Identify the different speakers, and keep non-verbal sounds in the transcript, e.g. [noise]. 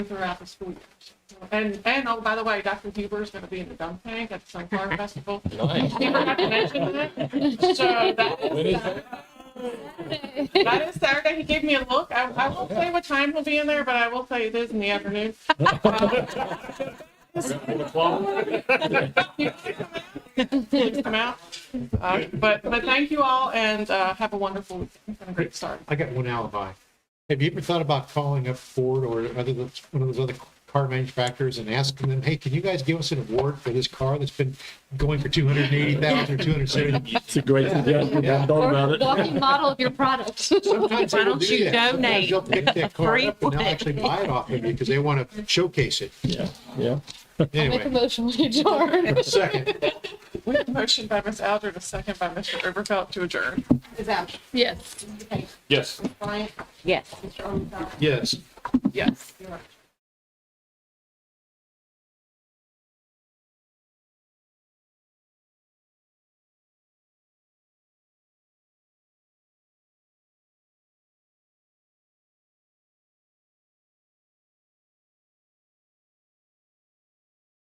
Speaker 1: throughout the school year. And, and, oh, by the way, Dr. Huber is going to be in the dump tank at the Sunflower Festival.
Speaker 2: Nice.
Speaker 1: He forgot to mention that. So that is uh,
Speaker 2: When is that?
Speaker 1: That is Saturday. He gave me a look. I, I won't say what time he'll be in there, but I will say it is in the afternoon. Please come out. Uh, but but thank you all and uh, have a wonderful weekend and a great start.
Speaker 3: I got one alibi. Have you ever thought about calling up Ford or other those- one of those other car manufacturers and asking them, hey, can you guys give us an award for this car that's been going for two hundred and eighty thousand or two hundred and seventy?
Speaker 4: It's a great suggestion. I thought about
Speaker 5: Or
Speaker 4: it.
Speaker 5: walking model of your product. [laughs]
Speaker 3: Sometimes they
Speaker 6: Why
Speaker 3: will
Speaker 6: don't
Speaker 3: do
Speaker 6: you
Speaker 3: that. Sometimes
Speaker 6: donate
Speaker 3: They'll pick
Speaker 6: [laughs]
Speaker 3: that car
Speaker 6: free
Speaker 3: up and they'll
Speaker 6: one?
Speaker 3: actually buy it off of you because they want to showcase it.
Speaker 4: Yeah, yeah.
Speaker 5: Make a
Speaker 3: Anyway,
Speaker 5: motion when you adjourn.
Speaker 3: second,
Speaker 1: We have a motion by Ms. Alger, a second by Mr. Overfelt to adjourn.
Speaker 7: Ms. Alger,
Speaker 5: Yes.
Speaker 2: Yes.
Speaker 7: Bryant,
Speaker 6: Yes.
Speaker 7: Mr. Omenauer,
Speaker 3: yes.
Speaker 1: Yes.
Speaker 7: Mr. Rogers.